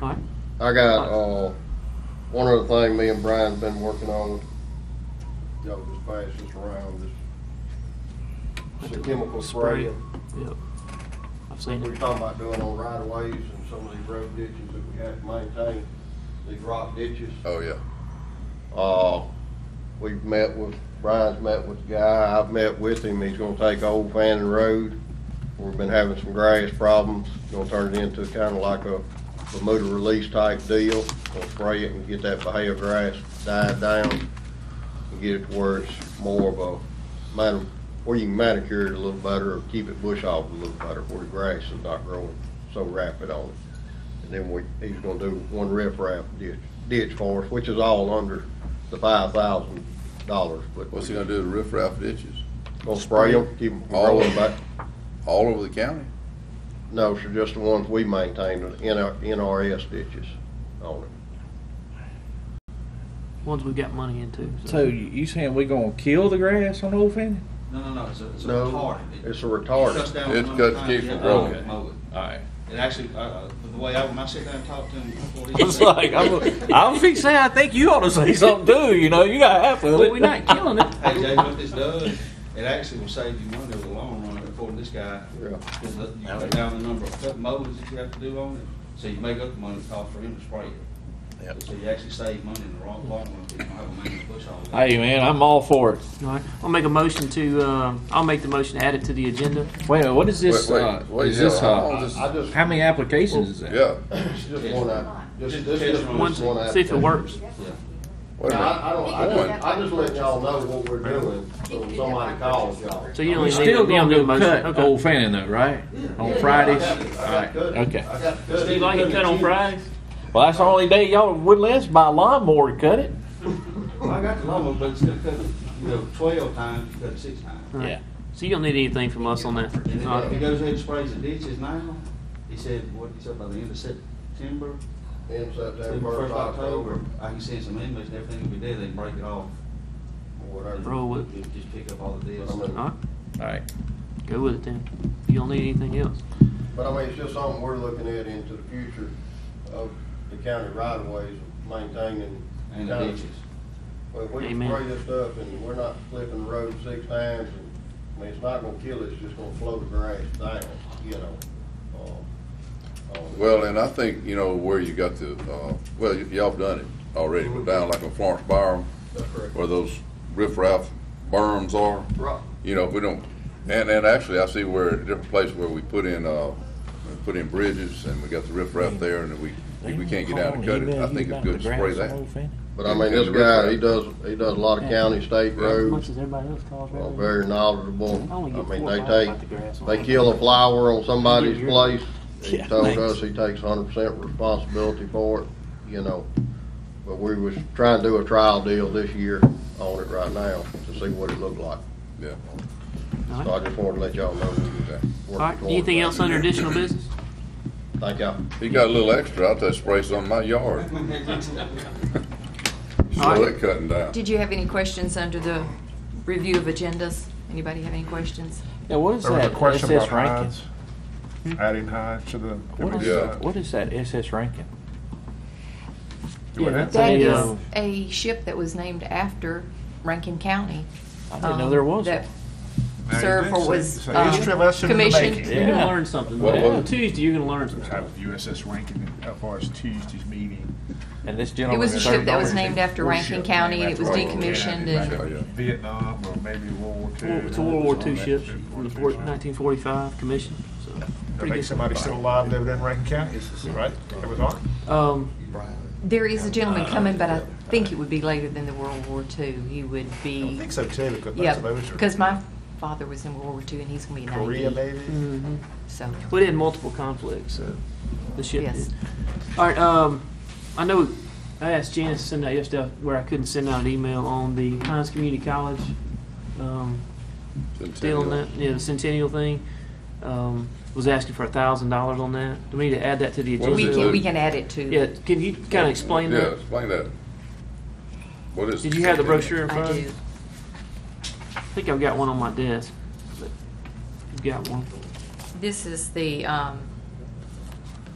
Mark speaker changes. Speaker 1: All right.
Speaker 2: I got uh, one other thing me and Brian's been working on. Y'all just pass this around. This it's a chemical spray.
Speaker 1: Yep. I've seen
Speaker 2: We were
Speaker 1: it.
Speaker 2: talking about doing on right of ways and some of these road ditches that we have to maintain, these rock ditches.
Speaker 3: Oh, yeah.
Speaker 2: Uh, we've met with, Brian's met with the guy, I've met with him, he's gonna take Old Fannin Road. We've been having some grass problems, gonna turn it into kinda like a Bermuda release type deal. Gonna spray it and get that Bahia grass died down and get it to where it's more of a man, where you can manicure it a little better or keep it bush off a little better, where the grass is not growing so rapid on it. And then we, he's gonna do one riprap ditch, ditch for us, which is all under the five thousand dollars, but.
Speaker 3: What's he gonna do to riffraff ditches?
Speaker 2: Gonna spray them, keep them from
Speaker 3: All of
Speaker 2: growing
Speaker 3: them?
Speaker 2: back.
Speaker 3: All over the county?
Speaker 2: No, sir, just the ones we maintain, the NR NRS ditches on it.
Speaker 1: Ones we've got money into.
Speaker 4: So you, you saying we gonna kill the grass on Old Fanny?
Speaker 5: No, no, no, it's a, it's a
Speaker 2: No,
Speaker 5: retardant.
Speaker 2: it's a
Speaker 5: Shuts
Speaker 2: retardant.
Speaker 5: down
Speaker 3: It's
Speaker 5: one
Speaker 3: got to
Speaker 5: time,
Speaker 3: keep from
Speaker 5: you have to
Speaker 3: growing.
Speaker 5: mow it.
Speaker 4: Alright.
Speaker 5: It actually, uh, uh, the way I, when I sit down and talk to him before he.
Speaker 4: It's like I'm, I'm fixing. to say, I think you ought to say something too. You know, you got half of it.
Speaker 1: But we're not killing it.
Speaker 5: Hey, Jay, what this does, it actually will save you money over the long run, according to this guy.
Speaker 2: Yeah.
Speaker 5: Because look, you cut down the number of cut mowers that you have to do on it, so you make up the money it costs for him to spray it.
Speaker 3: Yep.
Speaker 5: So you actually save money in the wrong, long run, if you don't have a man to push all that.
Speaker 4: Hey man, I'm all for it.
Speaker 1: All right. I'll make a motion to, uh, I'll make the motion to add it to the agenda.
Speaker 4: Wait, a minute, what is this?
Speaker 3: Wait, wait,
Speaker 4: uh,
Speaker 3: wait,
Speaker 4: is this?
Speaker 3: yeah, how long
Speaker 4: Uh,
Speaker 3: is
Speaker 2: I just,
Speaker 4: how many applications is that?
Speaker 3: Yeah.
Speaker 2: it's just one, out- just, this is
Speaker 5: Just
Speaker 2: just
Speaker 1: One,
Speaker 2: one.
Speaker 1: see if it
Speaker 2: application.
Speaker 1: works.
Speaker 3: Wait a
Speaker 2: Now, I, I
Speaker 3: minute.
Speaker 2: don't, I just, I just let y'all know what we're doing, so if somebody calls y'all.
Speaker 1: So you
Speaker 4: We
Speaker 1: only need, you
Speaker 4: still
Speaker 1: don't
Speaker 4: gonna
Speaker 1: do a
Speaker 4: do
Speaker 1: motion.
Speaker 4: cut
Speaker 1: Okay.
Speaker 4: Old Fanny though, right? On
Speaker 2: I
Speaker 4: Fridays.
Speaker 2: got it.
Speaker 4: All
Speaker 2: I got
Speaker 4: right.
Speaker 2: to cut it.
Speaker 4: Okay.
Speaker 2: I got to cut it.
Speaker 1: Steve, I can cut on Fridays.
Speaker 4: Well, that's the only day y'all would let us buy a lawnmower to cut it.
Speaker 5: I got the lawnmower, but it's gonna cut, you know, twelve times, you cut it six times.
Speaker 1: All right.
Speaker 4: Yeah.
Speaker 1: So you don't need anything from us on that.
Speaker 5: And
Speaker 1: All
Speaker 5: then if he
Speaker 1: right.
Speaker 5: goes ahead and sprays the ditches now, he said, what, he said by the end of September,
Speaker 2: In September,
Speaker 5: first
Speaker 2: first
Speaker 5: October,
Speaker 2: October,
Speaker 5: I can send some inmates and everything will be there, they can break it off.
Speaker 2: or whatever.
Speaker 1: Roll with
Speaker 5: Just- Just pick up all the deals.
Speaker 2: I mean,
Speaker 1: All right.
Speaker 4: All right.
Speaker 1: Go with it then. You don't need anything else.
Speaker 2: But I mean, it's just something we're looking at into the future of the county right of ways, maintaining.
Speaker 5: And the
Speaker 2: county-
Speaker 5: ditches.
Speaker 2: Well, if we
Speaker 1: Amen.
Speaker 2: spray this stuff and we're not flipping the road six times, and, I mean, it's not gonna kill it, it's just gonna flow the grass down, you know? um, uh, uh,
Speaker 3: Well, and I think, you know, where you got the, uh, well, y- y'all have done it already, but down like on Florence Byram,
Speaker 2: that's correct.
Speaker 3: where those riffraff berms are,
Speaker 2: Right.
Speaker 3: you know, we don't, and, and actually, I see where, a different place where we put in, uh, we put in bridges, and we got the riffraff there, and we, if we can't get down and cut it, I think it's good to spray that.
Speaker 2: But I mean, this guy, he does, he does a lot of county, state
Speaker 1: As
Speaker 2: roads,
Speaker 1: much as everybody else calls.
Speaker 2: Well,
Speaker 1: right?
Speaker 2: very knowledgeable.
Speaker 1: I only
Speaker 2: I
Speaker 1: get
Speaker 2: mean,
Speaker 1: four
Speaker 2: they
Speaker 1: miles about the grass
Speaker 2: take,
Speaker 1: on
Speaker 2: they
Speaker 1: it.
Speaker 2: kill a flower on somebody's
Speaker 1: Yeah, you're-
Speaker 2: place. He
Speaker 4: Yeah,
Speaker 2: told
Speaker 4: thanks.
Speaker 2: us he takes hundred percent responsibility for it, you know. But we was trying to do a trial deal this year on it right now to see what it looked like.
Speaker 3: Yeah.
Speaker 1: All
Speaker 2: So
Speaker 1: right.
Speaker 2: I just wanted to let y'all know. we was working
Speaker 1: All right.
Speaker 2: towards
Speaker 1: Anything
Speaker 2: that.
Speaker 1: else under additional business?
Speaker 2: Thank y'all.
Speaker 3: He got a little extra, I'll just spray some on my yard,
Speaker 1: All
Speaker 3: slow
Speaker 1: right.
Speaker 3: that cutting down.
Speaker 6: Did you have any questions under the review of agendas? Anybody have any questions?
Speaker 4: Yeah, what is
Speaker 7: There was a
Speaker 4: that
Speaker 7: question
Speaker 4: SS
Speaker 7: about
Speaker 4: ranking?
Speaker 7: hides, adding hides to the.
Speaker 4: What is,
Speaker 3: Yeah.
Speaker 4: what is that SS ranking?
Speaker 7: Do it.
Speaker 4: that's
Speaker 6: That
Speaker 4: a,
Speaker 6: is
Speaker 4: uh,
Speaker 6: a ship that was named after Rankin County.
Speaker 4: I didn't know
Speaker 6: um,
Speaker 4: there was.
Speaker 6: That
Speaker 4: one.
Speaker 7: Now, you
Speaker 6: served
Speaker 7: did
Speaker 6: or
Speaker 7: say-
Speaker 6: was
Speaker 7: say history
Speaker 6: um,
Speaker 7: lesson in the
Speaker 6: commissioned.
Speaker 7: making.
Speaker 1: You're gonna
Speaker 4: Yeah.
Speaker 1: learn something.
Speaker 3: What
Speaker 1: today.
Speaker 3: was it?
Speaker 1: Tuesday, you're gonna learn some stuff.
Speaker 7: Have USS ranking as far as Tuesday's meeting.
Speaker 4: And this
Speaker 6: It
Speaker 4: gentleman.
Speaker 6: was a
Speaker 4: is
Speaker 6: ship that was
Speaker 4: $30.
Speaker 6: named after
Speaker 7: Or
Speaker 6: Rankin
Speaker 7: ship
Speaker 6: County and
Speaker 7: named
Speaker 6: it was
Speaker 3: after
Speaker 7: Rankin
Speaker 6: decommissioned
Speaker 7: County.
Speaker 6: and
Speaker 3: Yeah, yeah.
Speaker 7: Vietnam or maybe World War Two.
Speaker 1: It's a World War II ship
Speaker 7: World War
Speaker 1: from the
Speaker 7: Two.
Speaker 1: fourth- 1945 commission. So
Speaker 7: I
Speaker 1: pretty
Speaker 7: think
Speaker 1: good.
Speaker 7: somebody's still alive living in Rankin County, right? It was on.
Speaker 1: Um,
Speaker 6: there is a
Speaker 7: Uh,
Speaker 6: gentleman coming, but I think it would be later than the World War II. He would
Speaker 7: I
Speaker 6: be,
Speaker 7: think so too, because most
Speaker 6: yeah,
Speaker 7: of those are
Speaker 6: because my father was in World War II and he's gonna be
Speaker 7: Korea
Speaker 6: ninety,
Speaker 7: maybe.
Speaker 1: mhm.
Speaker 6: so.
Speaker 1: we did multiple conflicts, so the ship
Speaker 6: Yes.
Speaker 1: did. All right. Um, I know I asked Janice to send out yesterday where I couldn't send out an email on the Pines Community College. Um, still on that, yeah, the centennial thing. Um, was asking for a thousand dollars on that. Do we need to add that to the
Speaker 3: What
Speaker 1: agenda?
Speaker 3: is
Speaker 6: We
Speaker 3: it,
Speaker 6: can,
Speaker 3: Lou?
Speaker 6: we can add it to.
Speaker 1: Yeah, can you kind of explain
Speaker 3: Yeah,
Speaker 1: that?
Speaker 3: explain that. What is?
Speaker 1: Did you have the brochure in front?
Speaker 6: I
Speaker 1: of
Speaker 6: do.
Speaker 1: you? I think I've got one on my desk. but You've got one.
Speaker 6: This is the um,